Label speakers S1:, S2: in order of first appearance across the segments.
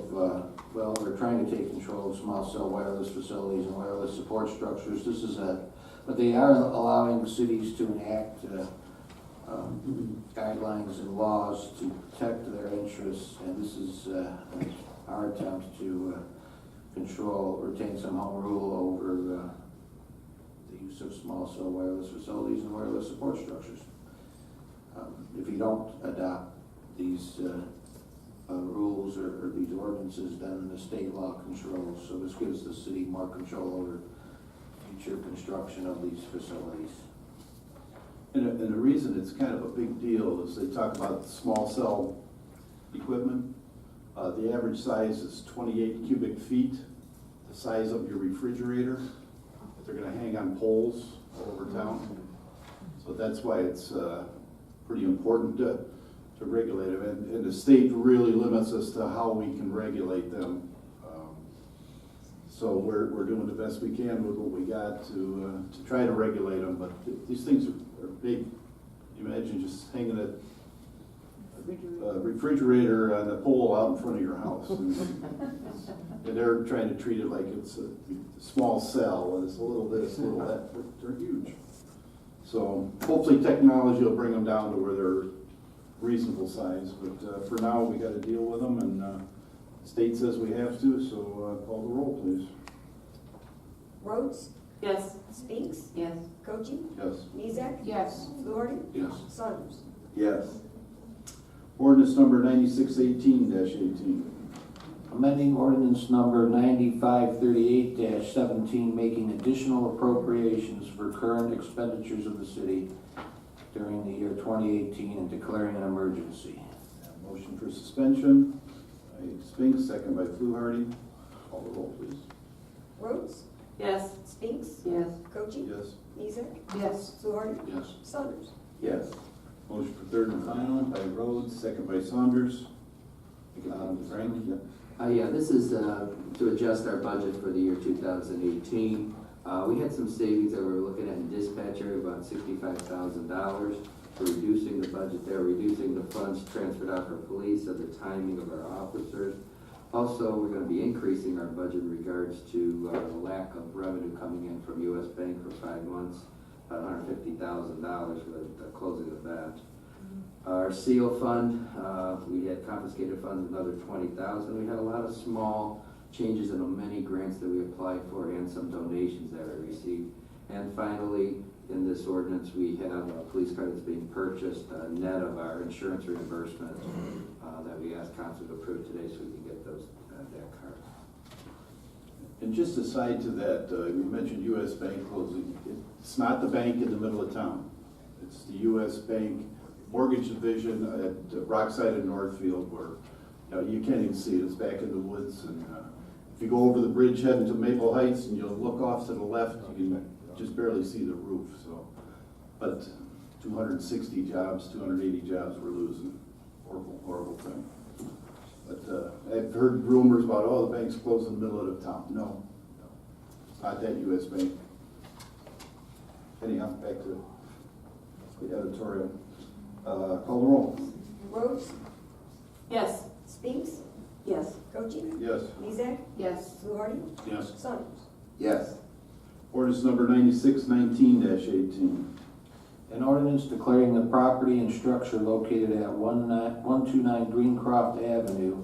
S1: uh, well, they're trying to take control of small cell wireless facilities and wireless support structures. This is a, but they are allowing cities to enact uh, um, guidelines and laws to protect their interests, and this is uh, our attempt to uh, control, retain some home rule over uh, the use of small cell wireless facilities and wireless support structures. Um, If you don't adopt these uh, uh, rules or or these ordinances, then the state law controls. So this gives the city more control over future construction of these facilities.
S2: And, the- and the reason it's kind of a big deal is they talk about small cell equipment. Uh, the average size is twenty-eight cubic feet, the size of your refrigerator. They're gonna hang on poles all over town. So that's why it's, uh, pretty important to, to regulate them. And, and the state really limits us to how we can regulate them. Um, So we're, we're doing the best we can with what we got to, uh, to try to regulate them, but th- these things are, are big. Imagine just hanging a a refrigerator on the pole out in front of your house. And and they're trying to treat it like it's a small cell, and it's a little this, a little that, but they're huge. So hopefully technology will bring them down to where they're reasonable size, but uh, for now, we gotta deal with them, and uh, state says we have to, so uh, call the roll, please.
S3: Rhodes,
S4: Yes.
S3: Spinks,
S4: Yes.
S3: Cochi,
S2: Yes.
S3: Mizek,
S4: Yes.
S3: Fluharty,
S1: Yes.
S3: Saunders.
S2: Yes. Ordinance number ninety-six eighteen eighteen.
S1: Amending ordinance number ninety-five thirty-eight seventeen, making additional appropriations for current expenditures of the city during the year twenty eighteen and declaring an emergency.
S2: Motion for suspension by Spinks, second by Fluharty. Call the roll, please.
S3: Rhodes,
S4: Yes.
S3: Spinks,
S4: Yes.
S3: Cochi,
S2: Yes.
S3: Mizek,
S4: Yes.
S3: Fluharty,
S1: Yes.
S3: Saunders.
S2: Yes. Motion for third and final by Rhodes, second by Saunders. Um, Frank?
S5: Uh, yeah, this is, uh, to adjust our budget for the year two thousand eighteen. Uh, we had some savings that we were looking at in dispatch area, about sixty-five thousand dollars. We're reducing the budget there, reducing the funds transferred out for police, of the timing of our officers. Also, we're gonna be increasing our budget in regards to, uh, the lack of revenue coming in from US Bank for five months, about hundred fifty thousand dollars with the closing of that. Our seal fund, uh, we had confiscated funds, another twenty thousand. We had a lot of small changes in many grants that we applied for and some donations that we received. And finally, in this ordinance, we have a police car that's being purchased, a net of our insurance reimbursement uh, that we asked council to approve today so we can get those, uh, that car.
S2: And just aside to that, uh, you mentioned US Bank closing. It's not the bank in the middle of town. It's the US Bank Mortgage Division at Rockside and Northfield where, you know, you can't even see it. It's back in the woods. And uh, if you go over the bridge heading to Maple Heights and you'll look off to the left, you can just barely see the roof, so. But two hundred and sixty jobs, two hundred and eighty jobs we're losing. Horrible, horrible thing. But uh, I've heard rumors about, oh, the bank's closed in the middle of the town. No, no, it's not that US Bank. Anyhow, back to the editorial. Uh, Call the roll.
S3: Rhodes,
S4: Yes.
S3: Spinks,
S4: Yes.
S3: Cochi,
S2: Yes.
S3: Mizek,
S4: Yes.
S3: Fluharty,
S2: Yes.
S3: Saunders.
S2: Yes. Ordinance number ninety-six nineteen eighteen.
S1: An ordinance declaring the property and structure located at one nine, one two nine Greencroft Avenue,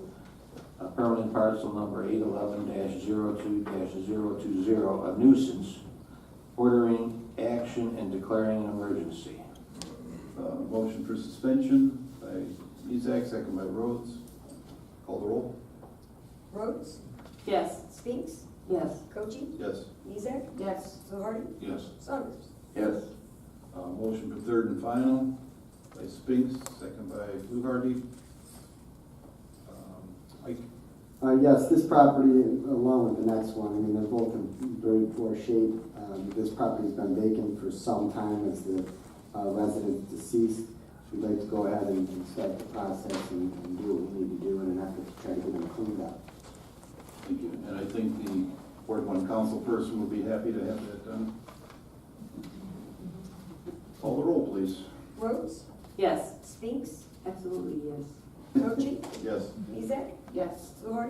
S1: uh, permanent parcel number eight eleven 2 20 a nuisance, ordering action and declaring an emergency.
S2: Uh, Motion for suspension by Mezak, second by Rhodes. Call the roll.
S3: Rhodes,
S4: Yes.
S3: Spinks,
S4: Yes.
S3: Cochi,
S2: Yes.
S3: Mizek,
S4: Yes.
S3: Fluharty,
S2: Yes.
S3: Saunders.
S2: Yes. Uh, motion for third and final by Spinks, second by Fluharty. Um, Mike?
S6: Uh, yes, this property, along with the next one, I mean, they're both in very poor shape. Um, this property's been vacant for some time as the uh, resident deceased. We'd like to go ahead and and start the process and, and do what we need to do in an effort to try to get them cleaned up.
S2: Thank you. And I think the Ward One council person would be happy to have that done. Call the roll, please.
S3: Rhodes,
S4: Yes.
S3: Spinks,
S4: Absolutely, yes.
S3: Cochi,
S2: Yes.
S3: Mizek,
S4: Yes.
S3: Fluharty,